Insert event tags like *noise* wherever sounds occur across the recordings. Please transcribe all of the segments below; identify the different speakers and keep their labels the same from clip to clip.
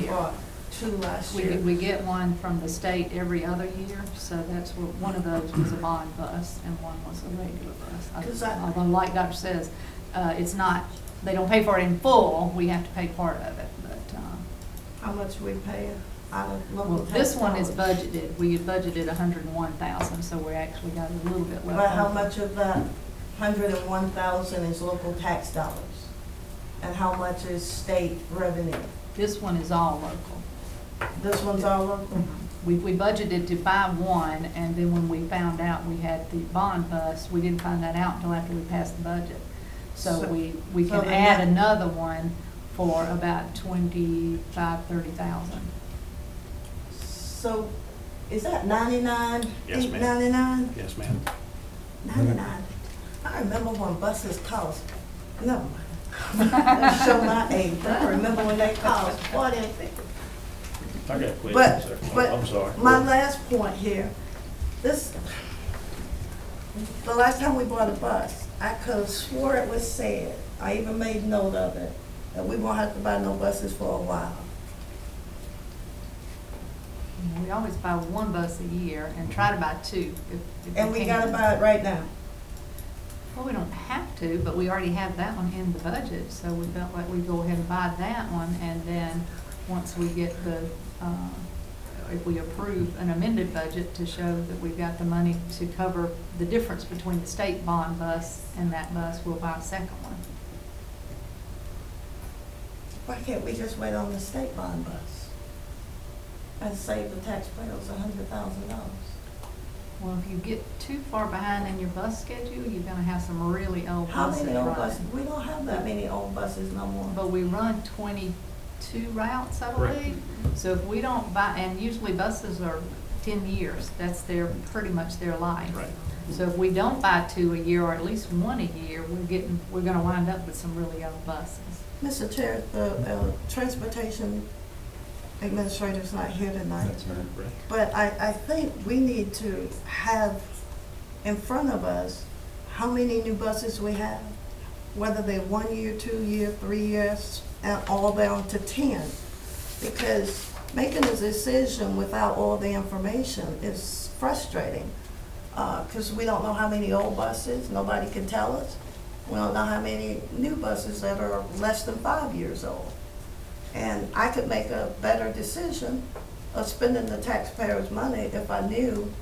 Speaker 1: year.
Speaker 2: bought two last
Speaker 1: We,
Speaker 2: year.
Speaker 1: we get one from the state every other year, so that's what, one of those was a bond bus and one was a regular
Speaker 2: Does
Speaker 1: bus.
Speaker 2: that-
Speaker 1: Although like Dr. says, uh, it's not, they don't pay for it in full, we have to pay part of it, but, um,
Speaker 2: How much we pay out of
Speaker 1: well,
Speaker 2: local tax
Speaker 1: this one is
Speaker 2: dollars?
Speaker 1: budgeted, we had budgeted a hundred and one thousand, so we actually got a little bit left.
Speaker 2: But how
Speaker 1: over.
Speaker 2: much of that hundred and one thousand is local tax dollars? And how much is state revenue?
Speaker 1: This one is all local.
Speaker 2: This one's all local?
Speaker 1: Mm-hmm. We, we budgeted to buy one, and then when we found out we had the bond bus, we didn't find that out until after we passed the budget. So
Speaker 2: So-
Speaker 1: we, we
Speaker 2: so
Speaker 1: can
Speaker 2: the
Speaker 1: add
Speaker 2: net-
Speaker 1: another one for about twenty-five, thirty thousand. Mm-hmm.
Speaker 2: So is that ninety-nine?
Speaker 3: Yes, ma'am.
Speaker 2: Ninety-nine?
Speaker 3: Yes, ma'am.
Speaker 2: Ninety-nine. I remember when buses cost, no,
Speaker 1: *laughs*
Speaker 2: that show my age, but I remember when they cost forty and fifty.
Speaker 3: I got questions,
Speaker 2: But,
Speaker 3: sir.
Speaker 2: but,
Speaker 3: I'm sorry.
Speaker 2: my last point here, this, the last time we bought a bus, I could have swore it was said, I even made note of it, that we won't have to buy no buses for a while.
Speaker 1: We always buy one bus a year and try to buy two if, if we can.
Speaker 2: And we gotta buy it right now.
Speaker 1: Well, we don't have to, but we already have that one in the budget, so we felt like we'd go ahead and buy that one, and then, once we get the, uh, if we approve an amended budget to show that we've got the money to cover the difference between the state bond bus and that bus, we'll buy a second one.
Speaker 2: Why can't we just wait on the state bond bus? And save the taxpayers a hundred thousand dollars?
Speaker 1: Well, if you get too far behind in your bus schedule, you're gonna have some really old
Speaker 2: How
Speaker 1: buses
Speaker 2: many old buses,
Speaker 1: running.
Speaker 2: we don't have that many old buses no more.
Speaker 1: But we run twenty-two routes, I
Speaker 3: Correct.
Speaker 1: believe. So if we don't buy, and usually buses are ten years, that's their, pretty much their life.
Speaker 3: Right.
Speaker 1: So if we don't buy two a year, or at least one a year, we're getting, we're gonna wind up with some really old buses.
Speaker 2: Mr. Chair, the uh, Transportation Administrator's not here tonight,
Speaker 3: Correct.
Speaker 2: but I, I think we need to have in front of us how many new buses we have, whether they're one year, two year, three years, and all down to ten. Because making a decision without all the information is frustrating, because we don't know how many old buses, nobody can tell us. We don't know how many new buses that are less than five years old. And I could make a better decision of spending the taxpayers' money if I knew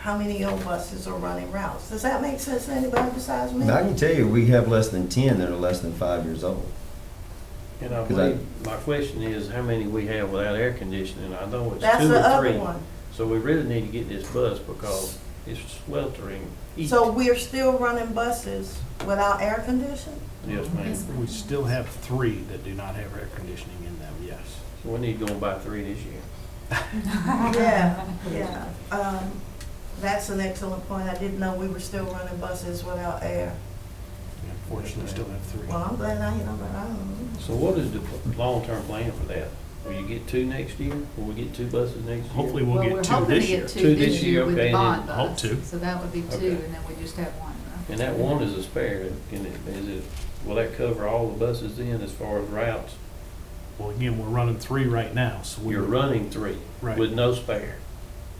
Speaker 2: how many old buses are running routes. Does that make sense to anybody besides me?
Speaker 4: Now, I can tell you, we have less than ten that are less than five years old.
Speaker 5: And I
Speaker 4: 'Cause I-
Speaker 5: believe, my question is, how many we have without air conditioning? I know it's
Speaker 2: That's
Speaker 5: two
Speaker 2: the
Speaker 5: or
Speaker 2: other
Speaker 5: three.
Speaker 2: one.
Speaker 5: So we really need to get this bus because it's sweltering heat.
Speaker 2: So we're still running buses without air conditioning?
Speaker 5: Yes, ma'am. So
Speaker 3: We still have three that do not have air conditioning in them, yes.
Speaker 5: we need to go and buy three this year.
Speaker 2: *laughs* Yeah, yeah. Um, That's an excellent point. I didn't know we were still running buses without air.
Speaker 3: We Unfortunately, still have three.
Speaker 2: Well, I'm glad I hit on that. I don't know.
Speaker 5: So what is the pl- long-term plan for that? Will you get two next year? Will we get two buses next year?
Speaker 3: Hopefully, we'll get
Speaker 1: Well,
Speaker 3: two
Speaker 1: we're hoping to
Speaker 3: this
Speaker 1: get two
Speaker 3: year.
Speaker 1: this year with the
Speaker 5: okay, and then
Speaker 1: bond bus.
Speaker 3: hope two.
Speaker 1: So that would be two,
Speaker 5: Okay.
Speaker 1: and then we just have one, right?
Speaker 5: And that one is a spare. Can it, is it, will that cover all the buses then as far as routes?
Speaker 3: Well, again, we're running three right now, so we.
Speaker 5: You're running three
Speaker 3: Right.
Speaker 5: with no spare.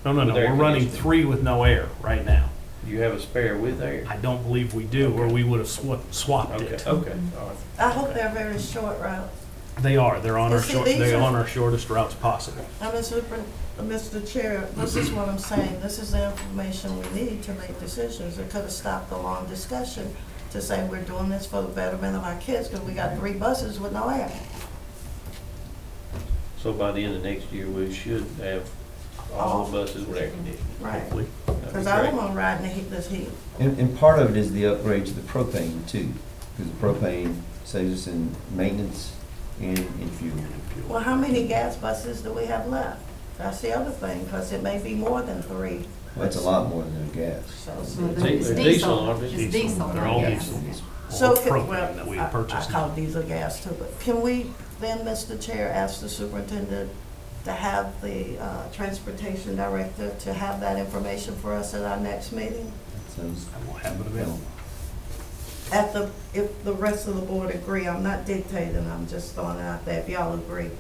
Speaker 3: No, no, no,
Speaker 5: with air
Speaker 3: we're running
Speaker 5: conditioning.
Speaker 3: three with no air right now.
Speaker 5: You have a spare with air?
Speaker 3: I don't believe we do, or we would have swa- swapped
Speaker 5: Okay,
Speaker 3: it.
Speaker 5: okay, all right.
Speaker 2: I hope they're very short routes.
Speaker 3: They are, they're on
Speaker 2: Well,
Speaker 3: our
Speaker 2: see,
Speaker 3: short,
Speaker 2: these
Speaker 3: they're
Speaker 2: are-
Speaker 3: on our shortest routes possible.
Speaker 2: Now, Mr. Pres- uh, Mr. Chair, this is what I'm saying, this is the information we need to make decisions. It could have stopped the long discussion to say we're doing this for the betterment of our kids, because we got three buses with no air.
Speaker 5: So by the end of next year, we should have all the buses with air conditioning.
Speaker 2: Right.
Speaker 5: Hopefully. That'd be
Speaker 2: Because I don't
Speaker 5: great.
Speaker 2: want to ride in the heat, this heat.
Speaker 4: And, and part of it is the upgrade to the propane too, because the propane saves us in maintenance and in fuel.
Speaker 2: Well, how many gas buses do we have left? That's the other thing, because it may be more than three,
Speaker 4: Well, That's a lot more than a gas.
Speaker 2: so.
Speaker 1: So
Speaker 5: Di-
Speaker 1: it's
Speaker 5: they're diesel, aren't they?
Speaker 1: It's diesel,
Speaker 3: They're
Speaker 1: not
Speaker 3: all
Speaker 1: gas.
Speaker 3: diesel.
Speaker 2: So,
Speaker 3: All
Speaker 2: can-
Speaker 3: propane
Speaker 2: well,
Speaker 3: that we
Speaker 2: I-
Speaker 3: have purchased.
Speaker 2: I call diesel gas too, but can we then, Mr. Chair, ask the superintendent to have the uh, transportation director to have that information for us at our next meeting?
Speaker 4: That sounds
Speaker 3: I will have it available.
Speaker 2: At the, if the rest of the board agree, I'm not dictating, I'm just throwing it out there, if y'all agree.